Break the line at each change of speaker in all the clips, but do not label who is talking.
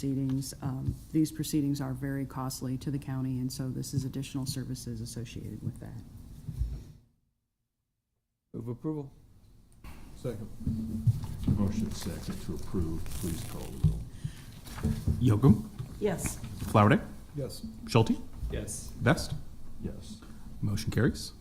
proceedings. Um, These proceedings are very costly to the county, and so this is additional services associated with that.
Move approval.
Second.
Motion second to approve, please call the roll.
Yocum,
yes,
Flowerday,
Yes.
Schulte,
Yes.
Vest.
Yes.
Motion carries.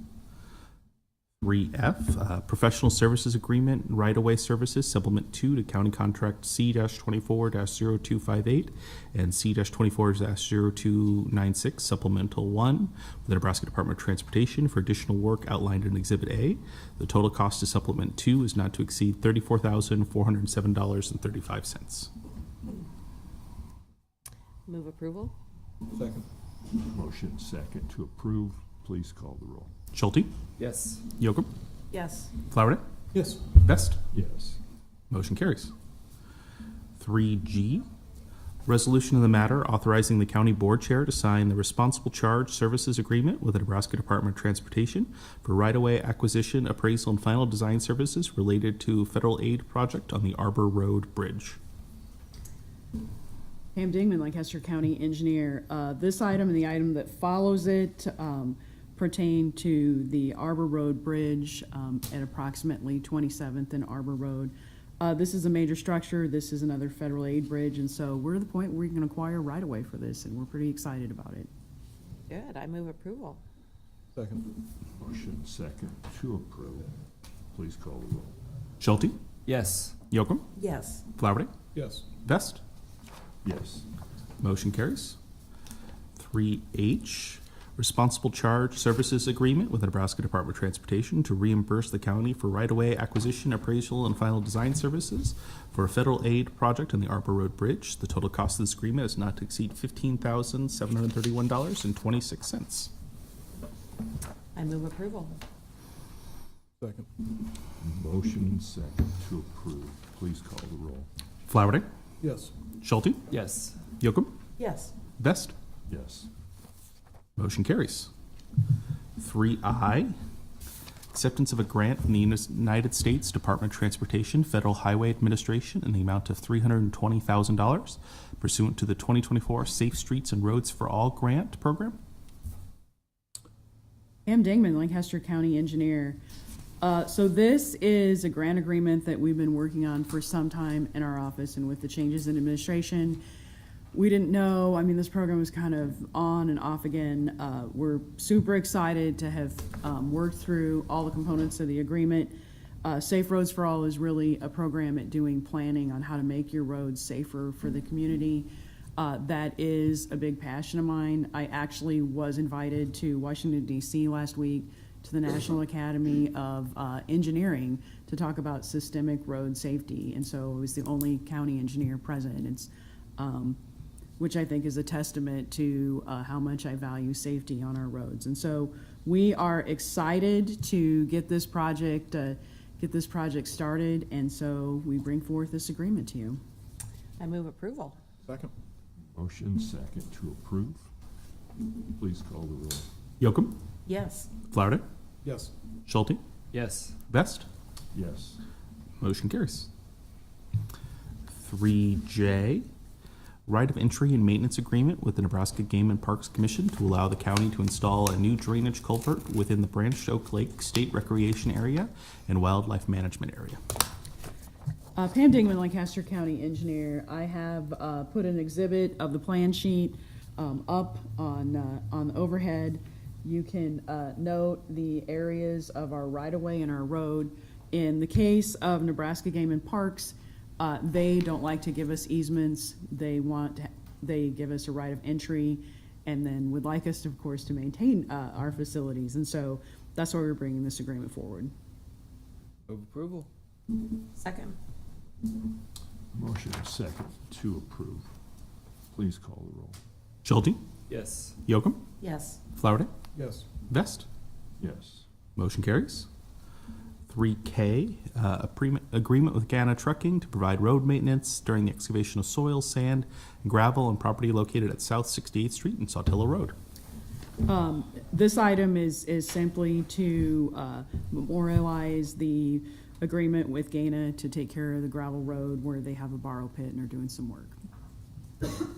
3F, uh, Professional Services Agreement, Right-of-Way Services, Supplement 2 to County Contract C-24-0258 and C-24-0296, Supplemental 1, with the Nebraska Department of Transportation for additional work outlined in Exhibit A. The total cost to Supplement 2 is not to exceed $34,407.35.
move approval,
Second.
Motion second to approve, please call the roll.
Schulte,
Yes.
Yocum,
yes,
Flowerday,
Yes.
Vest.
Yes.
Motion carries. 3G, resolution of the matter authorizing the county board chair to sign the responsible charge services agreement with the Nebraska Department of Transportation for right-of-way acquisition, appraisal, and final design services related to federal aid project on the Arbor Road Bridge.
Pam Dingman, Lancaster County Engineer. Uh, This item and the item that follows it um, pertain to the Arbor Road Bridge um, at approximately 27th and Arbor Road. Uh, This is a major structure. This is another federal aid bridge, and so we're at the point where we can acquire right-of-way for this, and we're pretty excited about it.
good, I move approval,
Second.
Motion second to approve, please call the roll.
Schulte,
Yes.
Yocum,
yes,
Flowerday,
Yes.
Vest.
Yes.
Motion carries. 3H, Responsible Charge Services Agreement with the Nebraska Department of Transportation to reimburse the county for right-of-way acquisition, appraisal, and final design services for a federal aid project on the Arbor Road Bridge. The total cost of this agreement is not to exceed $15,731.26.
I move approval,
Second.
Motion second to approve, please call the roll.
Flowerday,
Yes.
Schulte,
Yes.
Yocum,
yes,
Vest.
Yes.
Motion carries. Three I, acceptance of a grant from the United States Department of Transportation, Federal Highway Administration in the amount of three hundred and twenty thousand dollars pursuant to the twenty twenty-four Safe Streets and Roads for All Grant Program.
Pam Dingman, Lancaster County Engineer. Uh, So this is a grant agreement that we've been working on for some time in our office, and with the changes in administration, we didn't know, I mean, this program was kind of on and off again. Uh, We're super excited to have um, worked through all the components of the agreement. Uh, Safe Roads for All is really a program at doing planning on how to make your roads safer for the community. Uh, that is a big passion of mine. I actually was invited to Washington DC last week to the National Academy of uh, Engineering to talk about systemic road safety. And so I was the only county engineer present. It's, um, which I think is a testament to uh, how much I value safety on our roads. And so we are excited to get this project, uh, get this project started. And so we bring forth this agreement to you.
I move approval,
Second.
Motion second to approve, please call the roll.
Yocum,
yes,
Flowerday,
Yes.
Schulte,
Yes.
Vest.
Yes.
Motion carries. Three J, right of entry and maintenance agreement with the Nebraska Game and Parks Commission to allow the county to install a new drainage culvert within the Branch Oak Lake State Recreation Area and Wildlife Management Area.
Uh, Pam Dingman, Lancaster County Engineer. I have uh, put an exhibit of the plan sheet um, up on, uh, on the overhead. You can uh, note the areas of our right-of-way and our road. In the case of Nebraska Game and Parks, uh, they don't like to give us easements. They want, they give us a right of entry and then would like us, of course, to maintain uh, our facilities. And so that's why we're bringing this agreement forward.
Move approval.
second,
Motion second to approve, please call the roll.
Schulte,
Yes.
Yocum,
yes,
Flowerday,
Yes.
Vest.
Yes.
Motion carries. 3K, uh, a pre- agreement with Gana Trucking to provide road maintenance during the excavation of soil, sand, gravel, and property located at South 68th Street and Sawtilla Road.
Um, This item is, is simply to uh, memorialize the agreement with Gaina to take care of the gravel road where they have a borrow pit and are doing some work.